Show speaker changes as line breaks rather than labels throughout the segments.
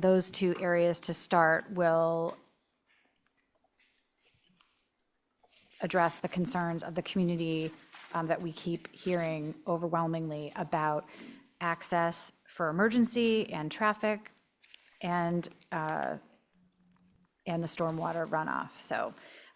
those two areas to start will address the concerns of the community um, that we keep hearing overwhelmingly about access for emergency and traffic and, uh, and the stormwater runoff. So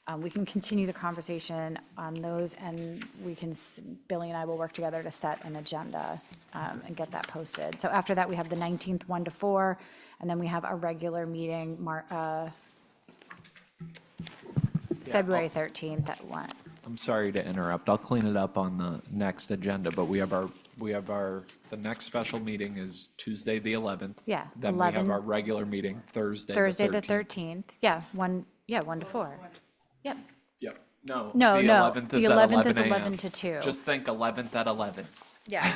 um, we can continue the conversation on those and we can, s- Billy and I will work together to set an agenda um, and get that posted. So after that, we have the 19th, 1 to 4, and then we have our regular meeting, Mar- uh, February 13th at 1.
I'm sorry to interrupt. I'll clean it up on the next agenda, but we have our, we have our, the next special meeting is Tuesday, the 11th.
Yeah,
Then we have
11.
our regular meeting Thursday, the 13th.
Thursday, the 13th, yeah, 1, yeah, 1 to 4. Yep,
Yep, no.
No,
the
no,
11th
the
is at
11th is
11 a.m.
11 to 2.
Just think 11th at 11.
yeah.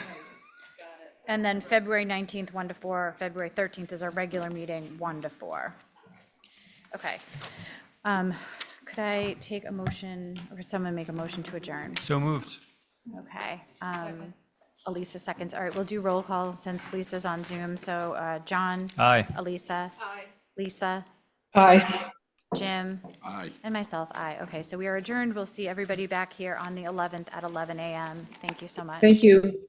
And then February 19th, 1 to 4, February 13th is our regular meeting, 1 to 4. Okay. Um, Could I take a motion, or could someone make a motion to adjourn?
So moved.
Okay. um, Elisa seconds, all right, we'll do roll call since Lisa's on Zoom, so uh, John.
Aye.
Elisa. Aye. Lisa.
Aye.
Jim.
Aye.
And myself, aye. Okay, so we are adjourned. We'll see everybody back here on the 11th at 11 a.m. Thank you so much.
Thank you.